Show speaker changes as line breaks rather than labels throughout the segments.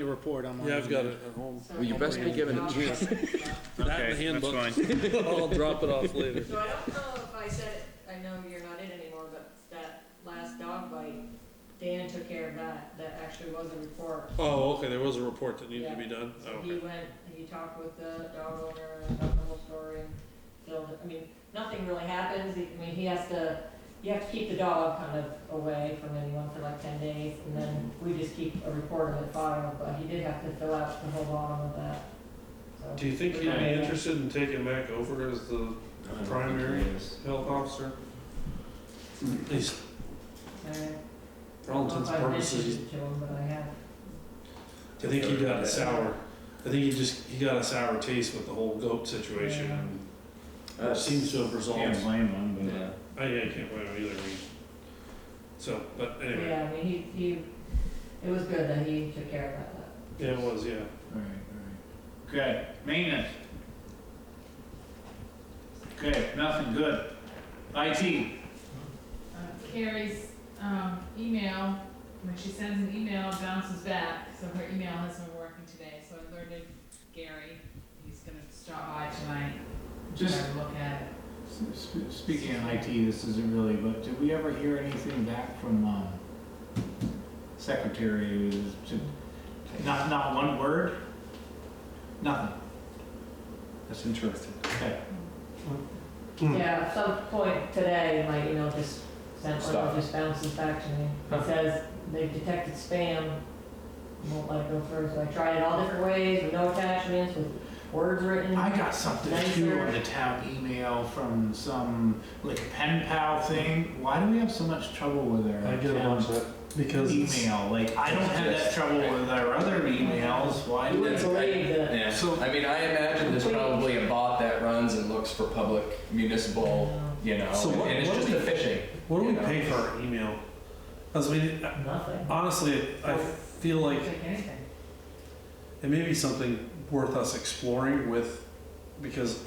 The report, I'm on.
Yeah, I've got it at home.
Well, you best be given a chance.
That and the
Okay,
handbook.
that's fine.
I'll drop it off later.
So I don't know if I said, it. I know you're not in anymore, but that last dog bite, Dan took care of that, that actually was a report.
Oh, okay, there was a report that needed to be done. Oh,
So he
okay.
went, he talked with the dog owner about the whole story, and filled it, I mean, nothing really happens, I mean, he has to, you have to keep the dog kind of away from anyone for like ten days, and then we just keep a report of it filed, but he did have to fill out the whole bottom of that, so.
Do you think he'd be interested in taking back over as the primary
Uh,
health officer? He's,
Uh,
for all intents and purposes,
I don't know if I mentioned it to him, but I have.
I think he got a sour, I think he just, he got a sour taste with the whole goat situation. and It seems to have
Can't
resolved.
blame them,
Yeah. I, yeah, I can't blame him either. I mean, So, but anyway,
Yeah, I mean, he, he, it was good that he took care of that.
yeah, it was, yeah.
but, alright, alright. Okay, maintenance. Okay, nothing, good. IT,
Uh, Carrie's um, email, when she sends an email, bounces back, so her email hasn't been working today, so I alerted Gary, he's gonna stop by tonight, and
Just-
have a look at it.
S- sp- Speaking of IT, this isn't really, but did we ever hear anything back from um, secretary? to- Not, not one word? Nothing? That's interesting. Okay. Hmm.
Yeah, at some point today, my email just sent one,
Stop.
that just bounces back to me. It says they've detected spam, won't let it go through, so I tried it all different ways, with no attachments, with words written.
I got something too on the town email from some, like pen pal thing. Why do we have so much trouble with our
I get a bunch
town
of, because it's,
email? Like, I don't have that trouble with our other emails. Why do we?
Wouldn't believe that.
Yeah,
So-
I mean, I imagine there's probably a bot that runs and looks for public municipal, you know,
So what-
and it's
what
just
do
a
we-
phishing.
what do we
you know?
pay for our email? As we,
Nothing.
honestly, I feel
I
like
don't think anything.
it may be something worth us exploring with, because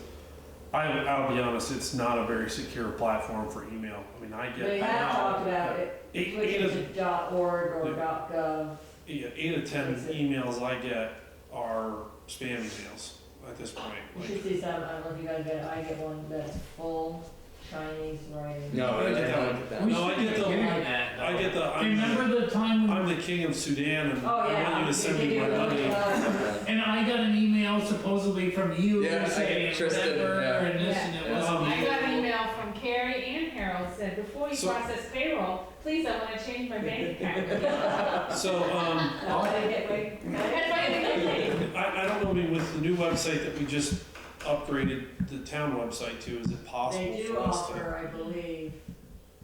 I, I'll be honest, it's not a very secure platform for email. I mean, I
They
get,
have
I know.
talked about it,
eight, eight
switching
of,
to dot org or
Yeah.
dot gov.
yeah, eight of ten emails I get are spam emails at this point.
You
Like,
should see some, I don't know if you guys get it, I get one that's full Chinese writing.
No, I don't like that.
We
No, I
should
get the-
be doing that,
I get the,
though.
I'm,
Remember the time when
I'm the king of Sudan and
Oh,
I
yeah.
want you to send me
do
my
uh, really
money.
well.
And I got an email supposedly from you
Yeah, I-
saying
Tristan,
whatever
yeah.
and this and it
Yeah.
was.
Um,
I got an email from Carrie and Harold, said, before you
So-
process payroll, please, I wanna change my bank account.
So, um,
That's how you uh, get way-
That's why I didn't get it.
I, I don't know, I mean, with the new website that we just upgraded the town website to, is it possible
They do
for us to?
offer, I believe,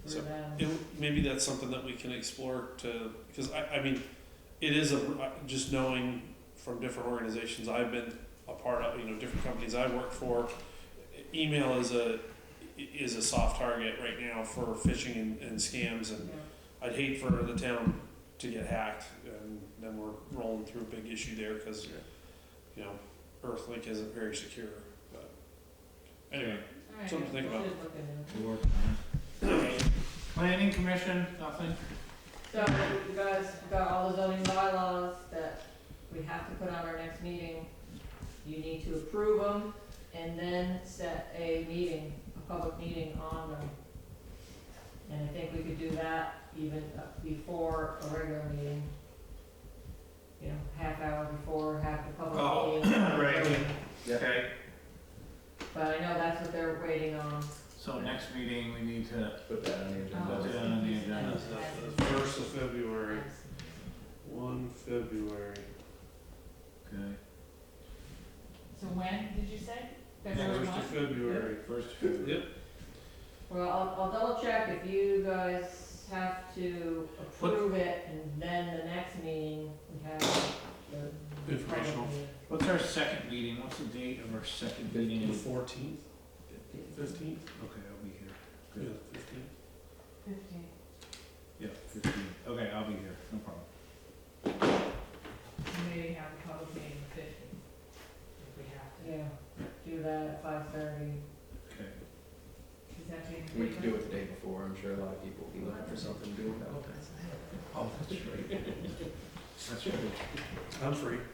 So-
through them.
It, maybe that's something that we can explore to, because I, I mean, it is a, just knowing from different organizations I've been a part of, you know, different companies I've worked for, email is a, is a soft target right now for phishing and, and scams and I'd hate for the town to get hacked, and then we're rolling through a big issue there, because, you know, Earthlink isn't very secure, but, anyway,
Alright.
something to think about.
Planning commission, nothing.
So you guys got all the zoning bylaws that we have to put on our next meeting. You need to approve them and then set a meeting, a public meeting on them. And I think we could do that even uh, before a regular meeting. You know, half hour before, half the
Oh,
public meeting.
right.
Yeah.
Okay.
But I know that's what they're waiting on.
So next meeting, we need to,
Put that on the
put
agenda.
that on the agenda.
that's
Oh.
the first of February, one February.
Okay.
So when, did you say? February
First
one?
of February.
First.
Yep,
Well, I'll, I'll double check if you guys have to approve it, and then the next meeting, we have the.
Informational.
What's our second meeting? What's the date of our second
the
meeting?
fourteenth, fifteenth,
Okay, I'll be here.
yeah,
Good.
fifteenth.
Fifteen.
Yeah, fifteen. Okay, I'll be here, no problem.
Maybe have a public meeting the fifteenth, if we have to.
Yeah, do that at five thirty.
Okay.
Does that take?
We could do it the day before, I'm sure a lot of people will be looking for something to do with that.
Oh, that's right. That's right.
I'm free.